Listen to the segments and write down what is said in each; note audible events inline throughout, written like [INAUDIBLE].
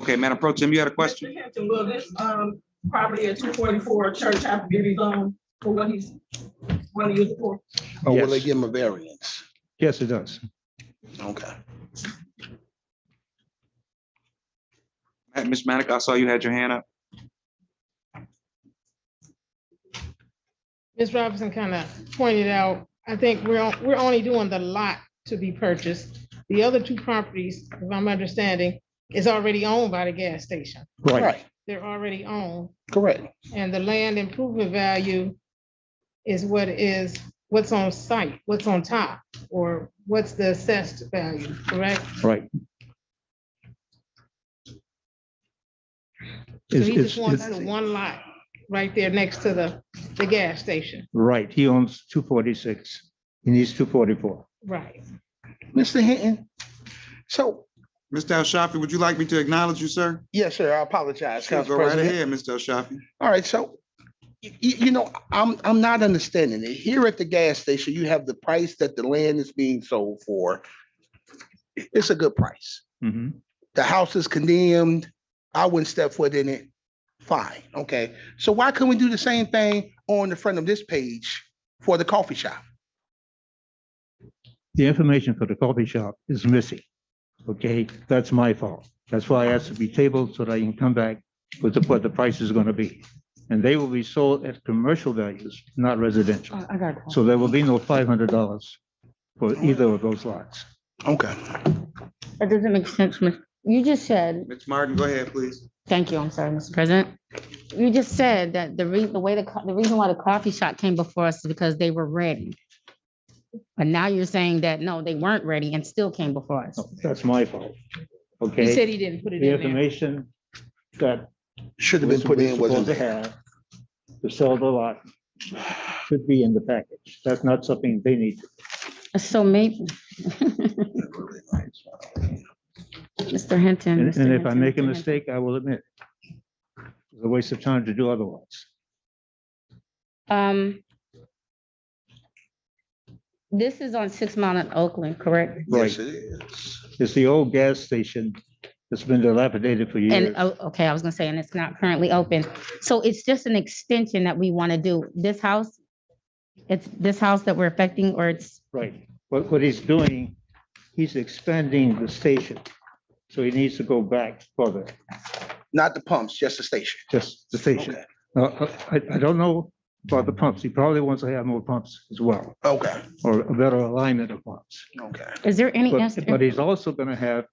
Okay, Madam Pro Tim, you had a question? Mr. Hampton, will this, um, property at two forty-four Church Ave be rezoned for what he's, what he used for? Or will they Yes. give them a variance? Yes, it does. Okay. Uh, Ms. Manica, I saw you had your hand up. Ms. Robinson kind of pointed out, I think we're, on- we're only doing the lot to be purchased. The other two properties, if I'm understanding, is already owned by the gas station. Right. They're already owned, Correct. and the land improvement value is what is, what's on site, what's on top, or what's the assessed value, correct? Right. So It's- he it's- just wants it's- the one lot right there next to the, the gas station, Right, he owns two forty-six, he needs two forty-four. right? Mr. Hinton, so, Mr. El Shafi, would you like me to acknowledge you, sir? yes, sir, I apologize, Sure, Council Go right President. ahead, Mr. El Shafi. All right, so, you, you know, I'm, I'm not understanding it. Here at the gas station, you have the price that the land is being sold for. It's a good price. Mhm. The house is condemned. I wouldn't step foot in it. Fine, okay. So why couldn't we do the same thing on the front of this page for the coffee shop? The information for the coffee shop is missing. Okay, that's my fault. That's why I asked to be tabled so that I can come back with the, what the price is gonna be. And they will be sold at commercial values, not residential. Oh, I got Oh. it. So there will be no five hundred dollars for either of those lots. Okay. That doesn't make sense, Miss. You just said, Ms. Martin, go ahead, please. thank you, I'm sorry, Mr. President. You just said that the reason, the way the, co- the reason why the coffee shop came before us is because they were ready. But now you're saying that, no, they weren't ready and still came before us. That's my fault. He Okay, said he didn't put it the in there. information that Should have been was put in, supposed wasn't to it? have to sell the lot should be in the package. That's not something they need. Oh. So [LAUGHS] maybe. Mr. Hinton. And Mr. and if I Hinton, make a Mr. Hinton. mistake, I will admit. It's a waste of time to do otherwise. Um. This is on Six Mile and Oakland, correct? Yes, it is. It's the old gas station that's been dilapidated for years. And, oh, okay, I was gonna say, and it's not currently open. So it's just an extension that we want to do. This house, it's this house that we're affecting, or it's, Right. What, what he's doing, he's expanding the station. So he needs to go back further, Not the pumps, just the station. just the station. Okay. Now, I, I don't know about the pumps. He probably wants to have more pumps as well, Okay, or a better alignment of pumps. okay. is there any But, answer? but he's also gonna have,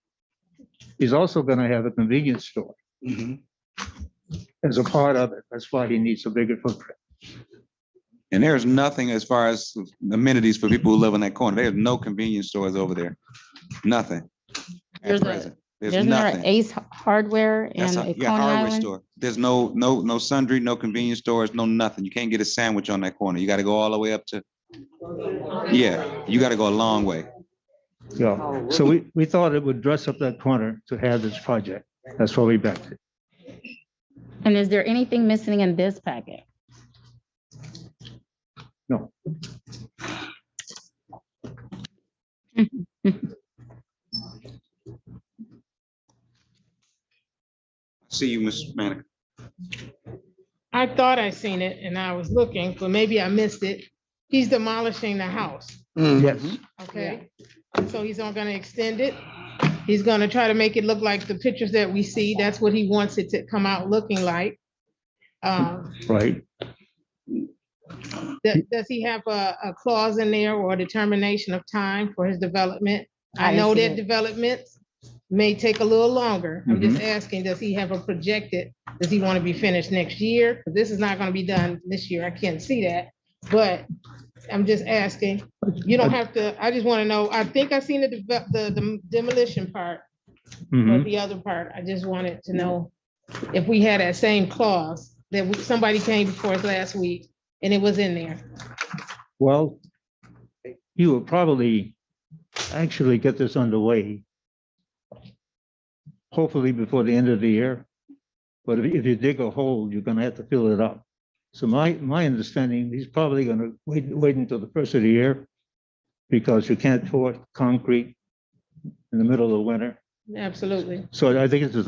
he's also gonna have a convenience store Mm-hmm. Mhm. as a part of it. That's why he needs a bigger footprint. And there's nothing as far as amenities for people who live in that corner. There's no convenience stores over there. Nothing. At There's a- present. There's Isn't there an nothing. Ace Hardware That's and a a yeah, Coney hardware Island? store. There's no, no, no sundry, no convenience stores, no nothing. You can't get a sandwich on that corner. You gotta go all the way up to, yeah, you gotta go a long way. Yeah. So we, we thought it would dress up that corner to have this project. That's why we backed it. And is there anything missing in this packet? No. See you, Ms. Manica. I thought I seen it and I was looking, but maybe I missed it. He's demolishing the house, Mm. Yes. okay? So he's not gonna extend it. He's gonna try to make it look like the pictures that we see. That's what he wants it to come out looking like. Um, Right. Does, does he have a, a clause in there or a determination of time for his development? I know that developments may take a little longer. I'm just asking, does he have a projected, does he want to be finished next year? 'Cause This is not going to be done this year. I can't see that. But I'm just asking, you don't have to, I just want to know, I think I seen the, deve- the the demolition part, Mhm. but the other part, I just wanted to know if we had that same clause, that we- somebody came before us last week and it was in there. Well, you will probably actually get this underway. Hopefully before the end of the year. But if if you dig a hole, you're gonna have to fill it up. So my, my understanding, he's probably gonna wait, wait until the first of the year. Because you can't pour concrete in the middle of winter. Absolutely. So I think this is a